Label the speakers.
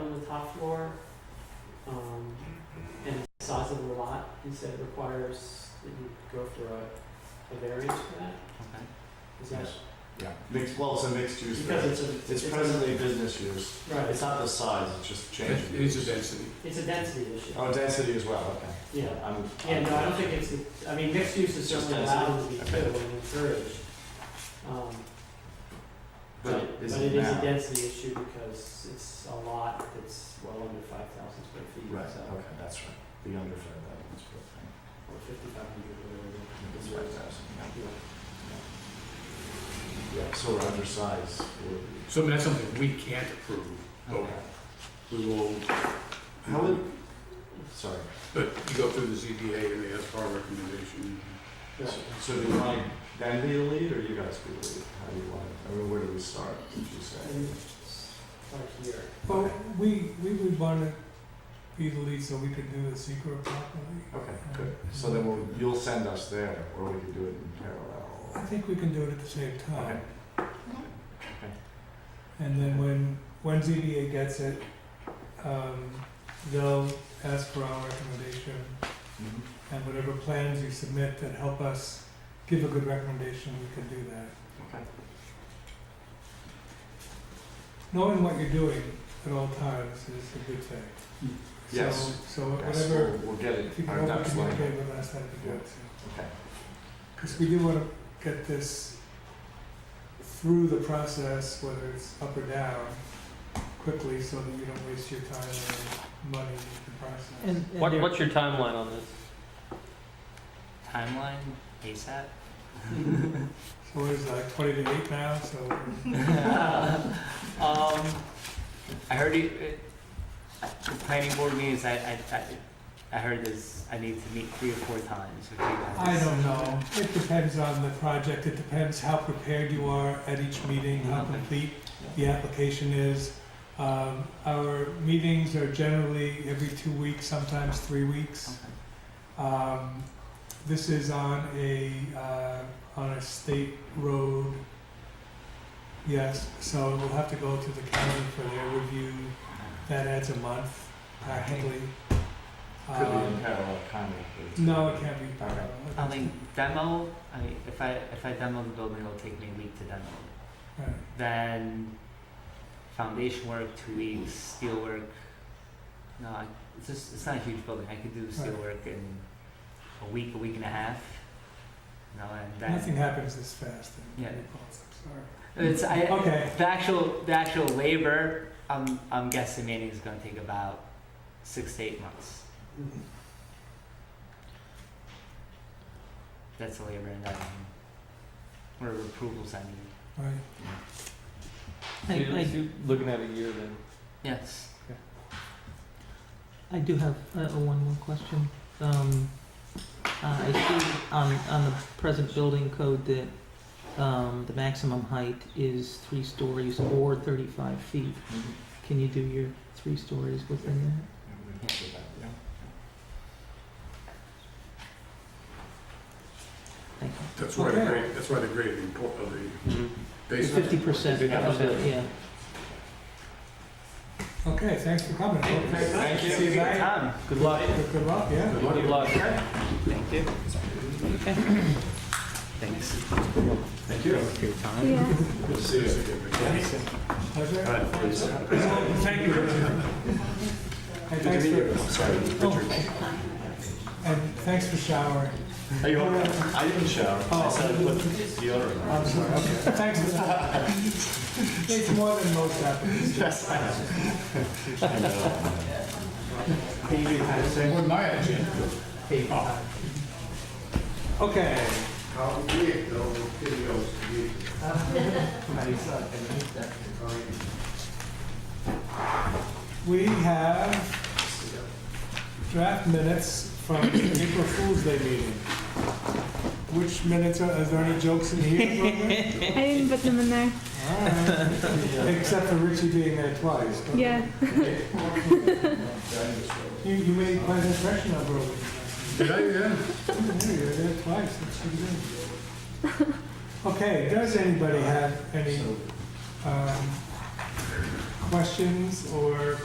Speaker 1: top floor, um, and the size of the lot, he said requires that you go for a, a variance for that,
Speaker 2: Okay.
Speaker 1: is that?
Speaker 3: Yeah, mixed, well, it's a mixed use,
Speaker 1: Because
Speaker 3: but
Speaker 1: it's a.
Speaker 3: it's
Speaker 1: a-
Speaker 3: presently business use.
Speaker 1: Right,
Speaker 3: It's not the size, it's just changing.
Speaker 4: It is a density.
Speaker 1: it's a density issue,
Speaker 3: Oh, density as well, okay.
Speaker 1: yeah.
Speaker 3: I'm.
Speaker 1: Yeah, no, I don't think it's, I mean, mixed use is
Speaker 3: Just
Speaker 1: certainly
Speaker 3: density.
Speaker 1: allowed to be too,
Speaker 3: Okay.
Speaker 1: and encouraged. Um,
Speaker 3: But it
Speaker 1: But, but
Speaker 3: isn't
Speaker 1: it is
Speaker 3: now.
Speaker 1: a density issue because it's a lot that's well under five thousand square feet,
Speaker 3: Right,
Speaker 1: so,
Speaker 3: okay, that's right. The under five thousand is what
Speaker 1: or fifty-five hundred,
Speaker 3: I think. It's
Speaker 1: whatever. it
Speaker 3: five
Speaker 1: is.
Speaker 3: thousand,
Speaker 1: Yeah.
Speaker 3: yeah. Yeah, so we're undersized. we're-
Speaker 4: So I mean, that's something we can't approve, but
Speaker 3: Okay.
Speaker 4: we will,
Speaker 3: How would, sorry,
Speaker 4: but you go through the ZBA and they ask for our recommendation.
Speaker 1: Yeah.
Speaker 3: So- so do you want them be the lead or you guys be the lead? How do you want it? I mean, where do we start, would you say?
Speaker 1: And it's right here,
Speaker 5: Well, we, we would want to be the lead so we could do the secret properly.
Speaker 3: Okay, good. So then we'll, you'll send us there or we can do it in parallel.
Speaker 5: I think we can do it at the same time.
Speaker 3: Okay.
Speaker 5: And then when, when ZBA gets it, um, they'll ask for our recommendation
Speaker 3: Mhm.
Speaker 5: and whatever plans you submit that help us give a good recommendation, we can do that.
Speaker 3: Okay.
Speaker 5: Knowing what you're doing at all times is a good thing.
Speaker 3: Yes.
Speaker 5: So, so
Speaker 3: Yes,
Speaker 5: whatever,
Speaker 3: we'll, we'll get
Speaker 5: if you
Speaker 3: it,
Speaker 5: can
Speaker 3: our
Speaker 5: open
Speaker 3: ducks lined up.
Speaker 5: communicate with us, that'd be good, so.
Speaker 3: Okay.
Speaker 5: Because we do want to get this through the process, whether it's up or down, quickly, so that you don't waste your time and money in the process.
Speaker 1: And,
Speaker 2: What-
Speaker 1: there-
Speaker 2: what's your timeline on this? Timeline ASAP?
Speaker 5: So what is it, like twenty to eight now, so
Speaker 2: um, I heard you, uh, the planning board meetings. I, I, I, I heard this. I need to meet three or four times with you guys.
Speaker 5: I don't know. It depends on the project, it depends how prepared you are at each meeting, how
Speaker 2: Okay.
Speaker 5: complete the application is. Um, our meetings are generally every two weeks, sometimes three weeks.
Speaker 2: Okay.
Speaker 5: Um, this is on a, uh, on a state road. Yes, so we'll have to go to the county for their review. That adds a month practically.
Speaker 3: Could be in
Speaker 5: Um,
Speaker 3: parallel, kind of.
Speaker 5: No, it can't be
Speaker 3: All right.
Speaker 5: parallel.
Speaker 2: I mean, demo. I mean, if I if I demo the building, it'll take me a week to demo. it.
Speaker 5: Right.
Speaker 2: Then foundation work two weeks. Steel work. No, I, it's just it's not a huge building. I could do steel
Speaker 5: Right.
Speaker 2: work in a week, a week and a half. No, and then
Speaker 5: Nothing happens this fast in
Speaker 2: Yeah.
Speaker 5: reports, I'm
Speaker 2: It's I,
Speaker 5: sorry. Okay,
Speaker 2: the actual the actual labor. I'm I'm guessing maybe is going to take about six to eight months.
Speaker 1: Mhm.
Speaker 2: That's the labor and then whatever approvals I need.
Speaker 5: right.
Speaker 6: I, I,
Speaker 3: looking at a year then.
Speaker 2: Yes.
Speaker 6: I do have uh, one more question. Um, uh, I see on, on the present building code that um, the maximum height is three stories or 35 feet.
Speaker 3: Mm-hmm.
Speaker 6: Can you do your three stories within that? Thank you.
Speaker 4: That's why the
Speaker 5: Okay.
Speaker 4: grade, that's why the grade import of the
Speaker 3: Mm-hmm.
Speaker 4: basement.
Speaker 6: Fifty percent of the, yeah.
Speaker 5: Okay, thanks for coming.
Speaker 3: Thank you.
Speaker 5: See you
Speaker 2: Good
Speaker 5: back.
Speaker 2: time.
Speaker 5: Good luck. Good luck, yeah.
Speaker 3: Good luck.
Speaker 2: Thank you.
Speaker 6: Okay.
Speaker 2: Thanks.
Speaker 3: Thank you.
Speaker 2: For your time.
Speaker 3: Good to see you.
Speaker 5: Pleasure.
Speaker 3: All right, please.
Speaker 5: Thank you. Hey, thanks for, Oh,
Speaker 3: Sorry, Richard.
Speaker 5: and thanks for showering.
Speaker 3: Are you okay? I didn't shower.
Speaker 4: Oh.
Speaker 3: I said I put deodorant on.
Speaker 5: I'm sorry, okay. Thanks for that. It's more than most happens.
Speaker 3: I know.
Speaker 4: With my agenda.
Speaker 5: Okay. We have draft minutes from the April Fool's Day meeting. Which minutes are, is there any jokes in here? Barbara?
Speaker 7: I didn't put them in there.
Speaker 5: All right. Except for Richie being there twice. but-
Speaker 7: Yeah.
Speaker 5: You, you made quite an impression on Brogan.
Speaker 4: Did I, yeah?
Speaker 5: Yeah, you were there twice, that's pretty good. Okay, does anybody have any, um, questions or